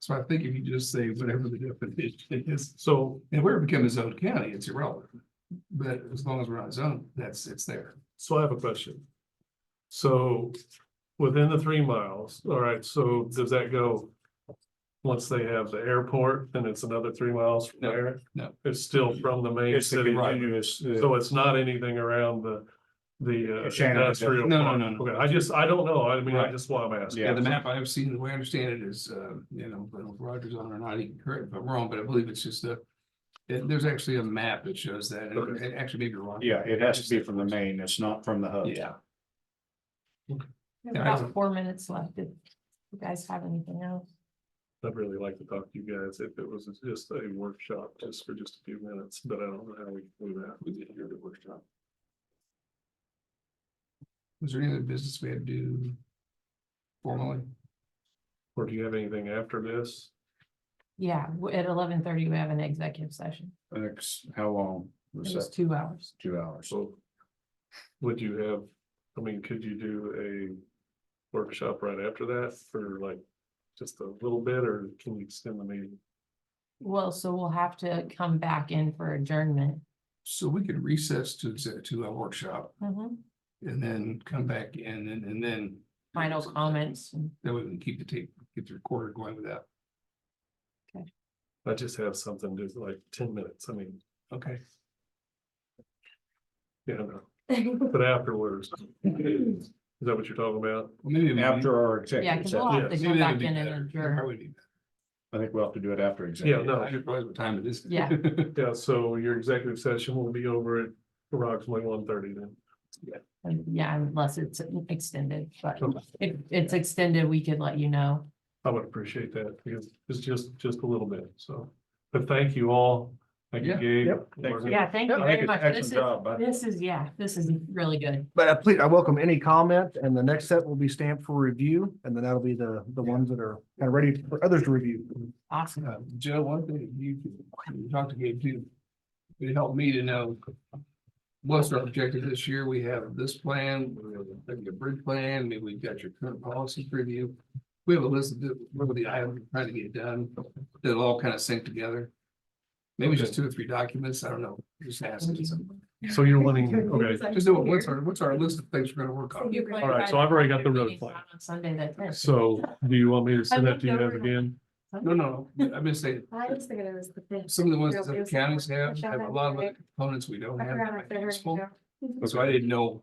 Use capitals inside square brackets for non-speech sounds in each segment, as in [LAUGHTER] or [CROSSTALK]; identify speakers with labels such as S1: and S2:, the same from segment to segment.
S1: So I think if you just say whatever the definition is, so, and where it becomes zoned county, it's irrelevant. But as long as we're not zoned, that's, it's there.
S2: So I have a question. So within the three miles, all right, so does that go? Once they have the airport, then it's another three miles from
S1: No,
S2: there?
S1: no.
S2: It's still from the main
S3: It's a
S2: city,
S3: continuous, uh,
S2: so it's not anything around the, the uh,
S3: Shannon,
S2: industrial.
S1: no, no,
S2: park.
S1: no, no.
S2: Okay, I just, I don't know. I mean, I
S3: Right.
S2: just want to ask.
S3: Yeah.
S1: Yeah, the map I've seen, the way I understand it is, uh, you know, but if Rogers on or not, he can correct if I'm wrong, but I believe it's just a. it- there's actually a map that shows that, and it actually maybe wrong.
S3: yeah, it has to be from the main, it's not from the hub.
S1: Yeah,
S4: We
S1: Yeah,
S4: have
S1: I
S4: About
S1: don't-
S4: four minutes left. If you guys have anything else?
S2: I'd really like to talk to you guys if it was just a workshop, just for just a few minutes, but I don't know how we can do that.
S1: we did hear the workshop. Was there any other business we had to do? Formally,
S2: Or do you have anything after this?
S4: Yeah, w- at eleven thirty, we have an executive session.
S3: That's how long was
S4: It was
S3: that?
S4: two hours.
S3: Two hours.
S2: So would you have, I mean, could you do a workshop right after that for like just a little bit or can you extend the meeting?
S4: Well, so we'll have to come back in for adjournment.
S1: so we could recess to, exec- to a workshop
S4: Mhm.
S1: and then come back in and, and then.
S4: Final comments. [LAUGHS] and-
S1: That way we can keep the tape, keep the recorder going with that.
S2: I just have something just like ten minutes. I mean,
S1: Okay.
S2: yeah, no, but afterwards. Is that what you're talking
S1: [LAUGHS]
S2: about?
S1: Well, maybe. we-
S3: After our
S4: Yeah,
S3: executive
S4: because we'll
S1: maybe that
S3: session,
S4: have to come back
S1: would be
S4: in
S1: better.
S4: and
S1: That
S4: adjourn.
S1: probably be better.
S3: I think we'll have to do it after
S2: Yeah,
S3: executive.
S2: no.
S1: I just realized what time it is.
S4: [LAUGHS] Yeah.
S2: Yeah, so your executive session will be over at approximately one thirty then.
S4: And, Yeah, unless it's extended, but
S2: Okay.
S4: if it's extended, we could let you know.
S2: I would appreciate that because it's just, just a little bit. So, but thank you all. Thank you,
S1: Yeah.
S2: Gabe.
S5: Yep.
S3: Thank you.
S4: Yeah, thank you
S3: I think it's
S4: very much.
S3: an
S4: This
S3: excellent
S4: is,
S3: job. I-
S4: this is, yeah, this is really good.
S5: But I please, I welcome any comment and the next set will be stamped for review and then that'll be the, the ones that are kind of ready for others to review.
S4: Awesome.
S1: Uh, Joe, one thing you, you talked to Gabe too. It helped me to know. What's our objective this year? We have this plan, we have a- a bridge plan, maybe we've got your current policy review. We have a list of the- what are the items we're trying to get done, that'll all kind of sync together. Maybe just two or three documents, I don't know, just asking.
S2: So you're wanting, okay.
S1: Just know what- what's our, what's our list of things we're gonna work on?
S2: All right, so I've already got the road
S4: Meeting's
S2: plan.
S4: not On Sunday, that's it.
S2: So do you want me to send
S4: I
S2: that to you
S4: looked
S2: guys
S4: over.
S2: again?
S1: No, no, no, I'm just saying,
S6: I was thinking it was the fifth.
S1: some of the ones that
S6: It
S1: other
S6: was-
S1: counties have,
S6: Michelle
S1: have a
S6: had
S1: lot of
S6: it.
S1: other components we don't
S6: I
S1: have.
S6: forgot
S1: that
S6: I
S1: might
S6: said
S1: be
S6: her
S1: useful.
S6: name, Joe.
S1: So I didn't know,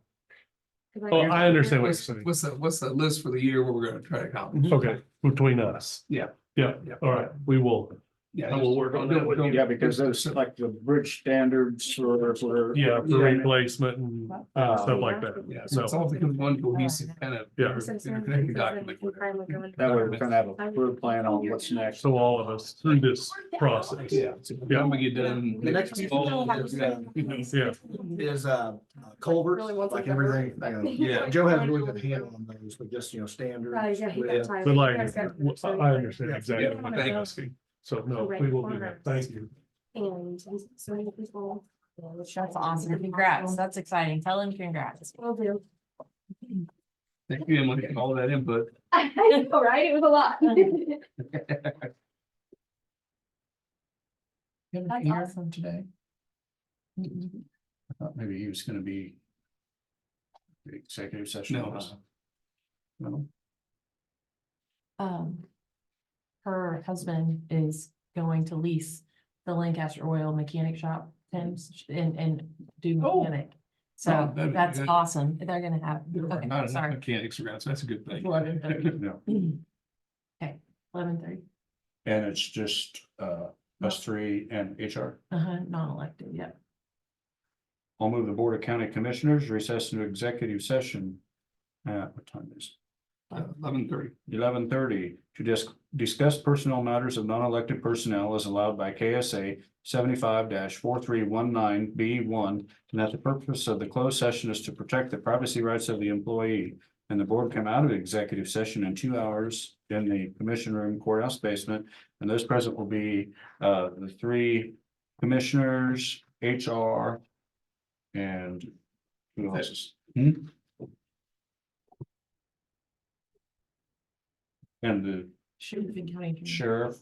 S6: 'Cause
S2: Oh, I understand what you're
S1: what's,
S2: saying.
S1: what's the, what's the list for the year where we're gonna try to accomplish?
S2: Okay, between us.
S1: Yeah.
S2: Yeah,
S1: Yeah.
S2: all right, we will.
S1: Yeah.
S2: And we'll work on that with
S3: Yeah, because those like the bridge standards for, for.
S2: Yeah, for
S3: Yeah.
S2: replacement and
S3: Uh,
S2: and stuff like that.
S1: Yeah, so it's all becomes one cohesive kind of.
S2: Yeah.
S6: Since then, since
S1: interconnected
S6: then,
S1: document.
S6: we can finally go into-
S3: That way we kind of have a clear plan on what's next.
S2: So all of us through this process.
S1: Yeah. so When we get done.
S5: The next piece-
S1: all of this,
S6: um,
S1: yeah.
S2: Yeah.
S5: Is, uh, culverts,
S6: Really wants
S5: like
S6: a culvert.
S5: everything, you know,
S1: Yeah.
S5: Joe has a really
S6: [LAUGHS]
S5: good handle on those, but just, you know, standards.
S6: Oh, yeah, he got
S5: with-
S6: tired.
S2: But like,
S6: You guys got
S2: I
S6: tired.
S2: I understand exactly
S1: Yeah,
S2: what
S1: thank
S2: you're
S1: you.
S2: asking. So no, we will do that. Thank you.
S6: And so many people.
S4: That's awesome. Congrats. That's exciting. Tell him congrats.
S6: Will do.
S1: Thank you, Emily, for all that input.
S6: [LAUGHS] I know, right? It was a lot.
S4: [LAUGHS] That's awesome.
S3: today? I thought maybe he was gonna be. the Executive session.
S1: No. No.
S4: Um, her husband is going to lease the Lancaster Oil Mechanic Shop, Tim's, and, and do
S1: Oh.
S4: mechanic.
S1: Oh,
S4: So
S1: that'd be
S4: that's
S1: good.
S4: awesome. They're gonna have,
S1: There are not
S4: okay,
S1: enough
S4: sorry.
S1: mechanics around, so that's a good thing.
S4: Eleven thirty.
S3: No,
S4: [CLEARS THROAT] Okay, eleven thirty,
S3: and it's just uh us three and HR.
S4: uh-huh, non-elected, yep.
S3: I'll move the Board of County Commissioners recess into executive session. At what time is
S1: [LAUGHS] Eleven thirty.
S3: it? Eleven thirty to dis- discuss personnel matters of non-elected personnel as allowed by KSA seventy-five four three one nine B one. And that the purpose of the closed session is to protect the privacy rights of the employee. And the board come out of executive session in two hours in the commission room courthouse basement. And those present will be uh the three commissioners, HR. And who else is? Hmm? And the
S7: Sheriff and County. Attorney.
S4: sheriff,